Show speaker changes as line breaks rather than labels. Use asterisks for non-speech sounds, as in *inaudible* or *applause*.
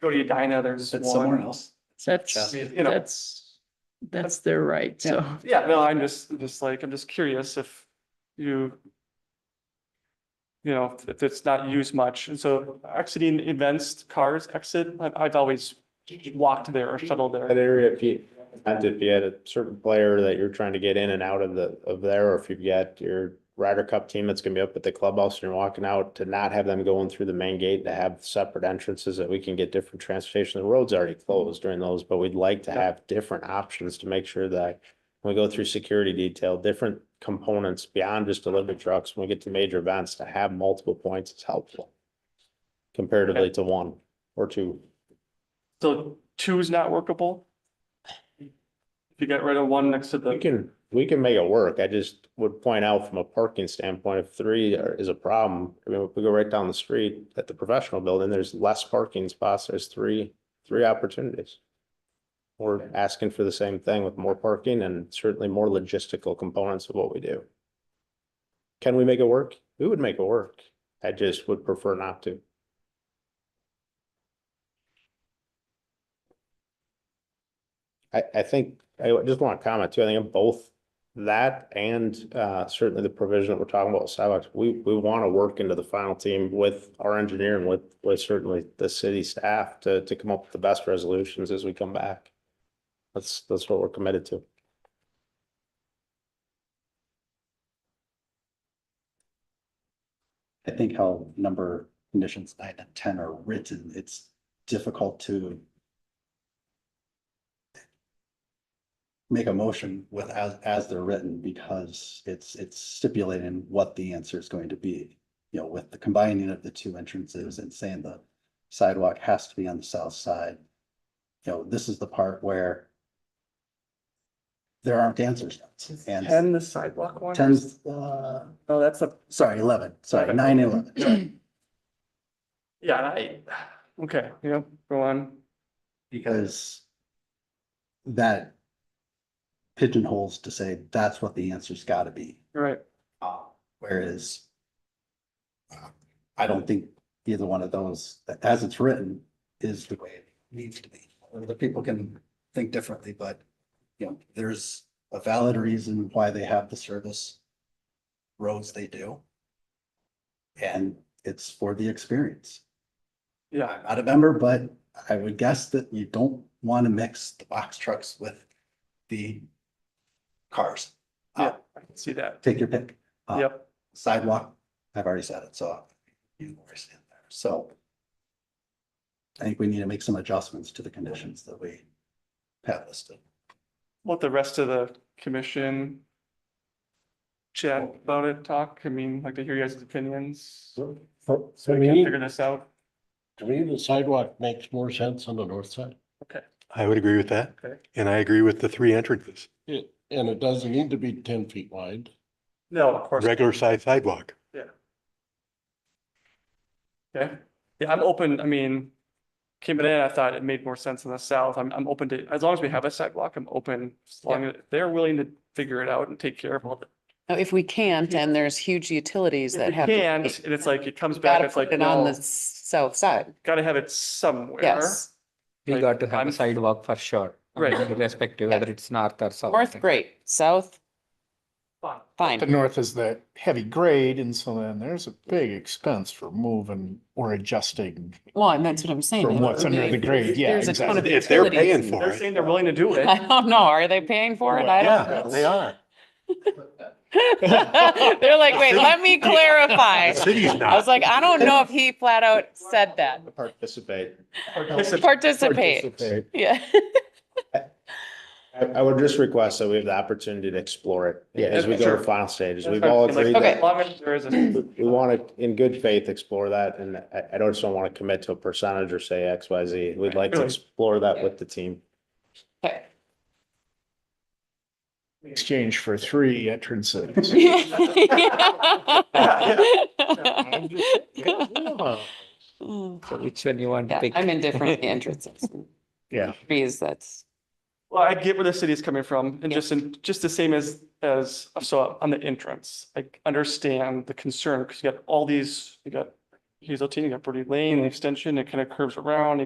go to Edina, there's
That's somewhere
one.
else.
I
That's,
mean, You know,
that's, that's their right, so.
yeah, no, I'm just, just like, I'm just curious if you you know, if it's not used much. And so exiting events, cars exit, I've, I've always walked there or shuttled
That
there.
area, if you, and if you had a certain player that you're trying to get in and out of the, of there, or if you've got your Ryder Cup team that's gonna be up at the clubhouse and you're walking out, to not have them going through the main gate, to have separate entrances that we can get different transportation. The road's already closed during those, but we'd like to
Yeah.
have different options to make sure that when we go through security detail, different components beyond just delivery trucks, when we get to major events, to have multiple points is helpful comparatively to one or two.
So two is not workable. If you get rid of one next to
We
the,
can, we can make it work. I just would point out from a parking standpoint, if
Mm-hmm.
three are- is a problem, I mean, if we go right down the street at the professional building, there's less parking spots. There's three, three opportunities. We're asking for the same thing with more parking and certainly more logistical components of what we do. Can we make it work? We would make it work. I just would prefer not to. I, I think, I just want to comment too, I think both that and uh, certainly the provision that we're talking about with sidewalks, we, we want to work into the final team with our engineer and with, with certainly the city staff to, to come up with the best resolutions as we come back. That's, that's what we're committed to.
I think how number conditions nine and ten are written, it's difficult to make a motion with as, as they're written because it's, it's stipulating what the answer is going to be. You know, with the combining of the two entrances and saying the sidewalk has to be on the south side. You know, this is the part where there aren't answers. And
and the sidewalk one?
tens, uh,
No, that's a,
sorry, eleven, sorry,
Eleven.
nine and eleven.
yeah, I, okay, you know, go on.
because that pigeonholes to say that's what the answer's gotta be,
You're right.
uh, whereas uh, I don't think either one of those, as it's written, is the way it needs to be. The people can think differently, but, you know, there's a valid reason why they have the service roads they do. And it's for the experience.
Yeah,
I'm not a member, but I would guess that you don't want to mix the box trucks with the cars.
yeah, I can see that.
Take your pick. Uh,
Yep.
Sidewalk, I've already said it, so you were in there, so. I think we need to make some adjustments to the conditions that we have listed.
let the rest of the commission chat about it, talk, I mean, like to hear you guys' opinions. So
So, For, for
we can
me,
figure this out.
to me, the sidewalk makes more sense on the north side.
I would agree with that.
Okay.
And I agree with the three entrances,
It, and it doesn't need to be ten feet wide.
No, of course.
regular size sidewalk.
Okay, yeah, I'm open, I mean, came in, I thought it made more sense in the south, I'm, I'm open to, as long as we have a sidewalk, I'm open. As long as they're willing to figure it out and take care of all the,
Now, If we can't, and there's huge utilities
if we
that have.
can't, and it's like, it comes back,
Gotta
it's like,
put it
no,
on the s- south side,
gotta have it somewhere.
yes.
We
Like,
got to have
I'm-
a sidewalk for sure. I mean,
Right.
Irrespective whether it's north or south.
North, great, south,
Fine.
The
fine,
north is that heavy grade, and so then there's a big expense for moving or adjusting
well, and that's what I'm saying.
from what's under the grade, yeah,
There's a ton
exactly.
of
If they're
utilities.
paying for
They're
it,
saying they're willing to do it.
*laughs* I don't know, are they paying for it? I
yeah,
don't
they are.
know. *laughs* They're like, wait, let me clarify.
The
*laughs*
city's
I was
not.
like, I don't know if he flat out said that,
Participate.
participate, yeah. *laughs*
I, I would just request that we have the opportunity to explore it
Yeah.
as we go
Sure.
to final stages.
That's
We've
what I'm
all
saying,
agreed
like,
that.
Okay.
As long as there is
*laughs*
a.
We want to, in good faith, explore that, and I, I don't just don't want to commit to a percentage or say X, Y, Z. We'd like to
Really?
explore that with the team.
Okay.
Exchange for three
*laughs*
entrances.
Yeah.
So Which one you want to
Yeah,
pick?
I'm indifferent to the entrances.
Yeah.
Trees, that's,
Well, I get where the city is coming from and just in, just the same as, as, so on the entrance, I understand the concern because you got all these, you got Hazelton, you got Birdie Lane, the extension, it kind of curves around, you